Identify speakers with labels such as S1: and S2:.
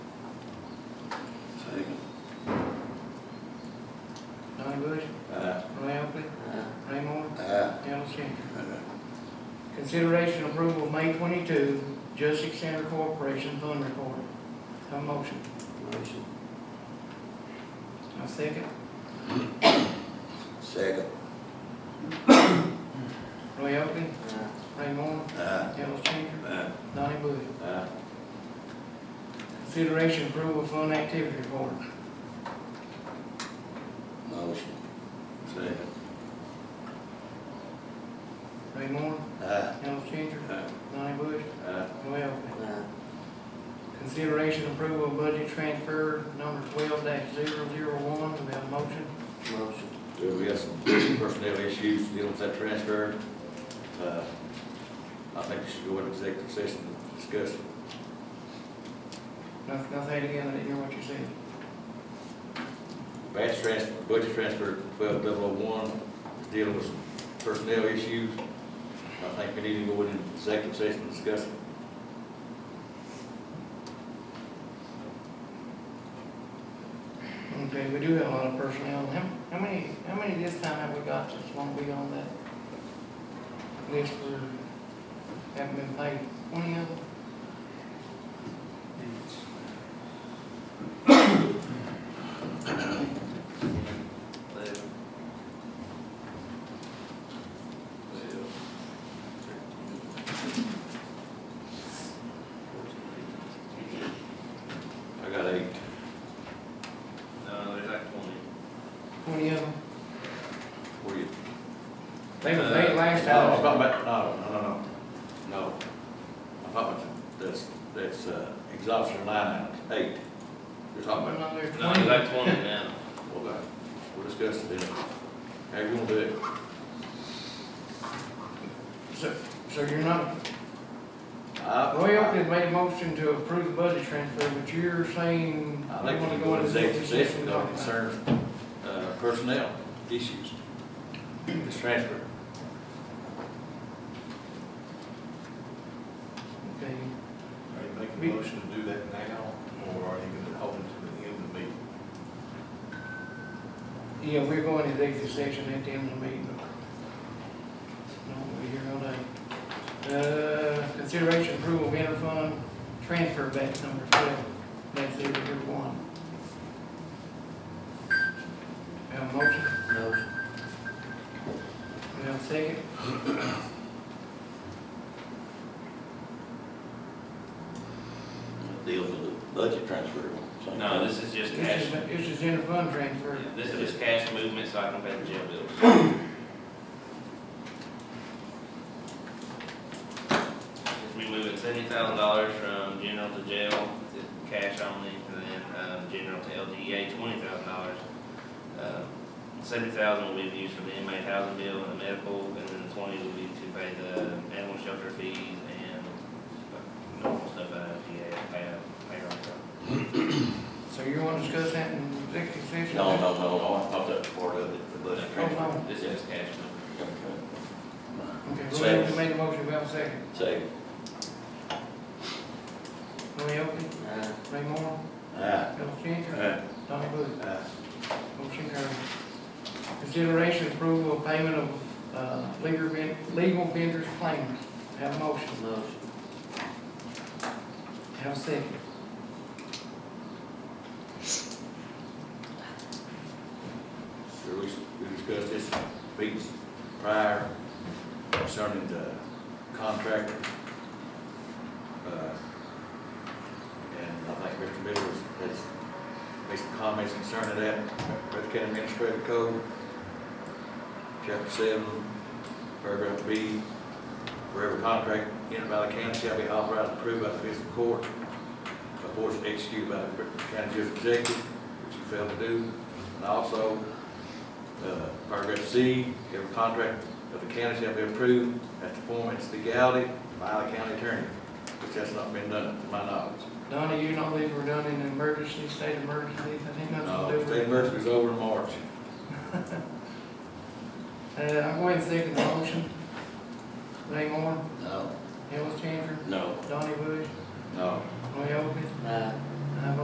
S1: Bush,
S2: Aye.
S1: Lampley, Raymore,
S2: Aye.
S1: Alexander. Consideration approval of May twenty-two, Justice Center Corporation Fund Report. Have a motion.
S2: Motion.
S1: I second.
S2: Second.
S1: Roy Elphie, Ray Moore,
S2: Aye.
S1: Ellis Changer,
S2: Aye.
S1: Donnie Bush.
S2: Aye.
S1: Consideration approval of fund activity report.
S2: Motion. Second.
S1: Ray Moore,
S2: Aye.
S1: Ellis Changer,
S2: Aye.
S1: Donnie Bush,
S2: Aye.
S1: Roy Elphie. Consideration approval of budget transfer number twelve dash zero zero one. Do we have a motion?
S2: Motion. Do we have some personnel issues dealing with that transfer? Uh, I think we should go into executive session and discuss. it.
S1: Nothing, nothing again, I didn't hear what you said.
S2: Batch transfer, budget transfer twelve double oh one, dealing with some personnel issues. I think we need to go into executive session and discuss. it.
S1: Okay, we do have a lot of personnel. How, how many, how many this time have we got that's gonna be on that list for, haven't been paid? Twenty of them?
S2: I got eight.
S3: No, there's like twenty.
S1: Twenty of them?
S2: What do you?
S1: They were paid last
S2: No, I'm talking
S1: time.
S2: about, no, no, no, no, no. I'm talking about that's, that's, uh, exhaustion line item, eight. You're talking about,
S1: No, there's
S3: No, there's
S1: twenty.
S3: like twenty now.
S2: okay, we'll discuss it then. How you gonna do it?
S1: So, so you're not,
S2: I-
S1: Roy Elphie had made a motion to approve the budget transfer, but you're saying
S2: I
S1: we
S2: think
S1: wanna
S2: we go
S1: go
S2: into
S1: into
S2: executive session,
S1: and
S2: though,
S1: talk about it.
S2: concerns, uh, personnel issues. This transfer.
S4: Are
S1: Okay,
S4: you making
S1: We-
S4: a motion to do that now, or are you gonna hold it to the end of the meeting?
S1: yeah, we're going to executive session at the end of the meeting. No, we're here all day. Uh, consideration approval of interfund transfer batch number twelve, batch zero zero one. Have a motion?
S2: Motion.
S1: We have a second?
S2: Deals with the budget transfer.
S3: No, this is just
S1: This
S3: cash.
S1: is, this is interfund transfer.
S3: This is just cash movement, so I can pay the jail bills. We moving seventy thousand dollars from general to jail, to cash only, and then, um, general to LGA, twenty thousand dollars. Um, Seventy thousand will be used for the inmate housing bill and the medical, and then the twenty will be to pay the animal shelter fees and normal stuff out of LGA, pay, pay our stuff.
S1: So you wanna discuss that in executive session?
S2: No, no, no, no, I thought that was part of it, the budget transfer.
S1: Oh,
S3: This is cash movement.
S1: no. Okay, Roy Elphie made a motion, we have a second.
S2: Say,
S1: Roy Elphie, Ray Moore,
S2: ah,
S1: Bill Changer,
S2: ah,
S1: Donnie Bush.
S2: ah.
S1: Motion carries. Consideration approval of payment of, uh, legal, ven- legal vendors claims. Have a motion.
S2: Motion.
S1: Have a second.
S2: Sure, we, we discussed this meetings prior concerning the contractor. Uh, And I think Mr. Miller has, has made some comments concerning that, Breath County Administrative Code, chapter seven, paragraph B, for every contract entered by the county shall be authorized and approved by the fiscal court, of course executed by the county judge executive, which you failed to do. And also, uh, paragraph C, every contract of the county shall be approved at the form its legality by the county attorney, which has not been done, to my knowledge.
S1: Donnie, you know these were done in emergency, state emergencies, I think
S2: Uh,
S1: nothing to do
S2: state
S1: with it.
S2: emergency is over in March.
S1: Uh, I'm going to second the motion. Ray Moore,
S2: No.
S1: Ellis Changer,
S2: No.
S1: Donnie Bush,
S2: No.
S1: Roy Elphie,
S2: No.
S1: and I vote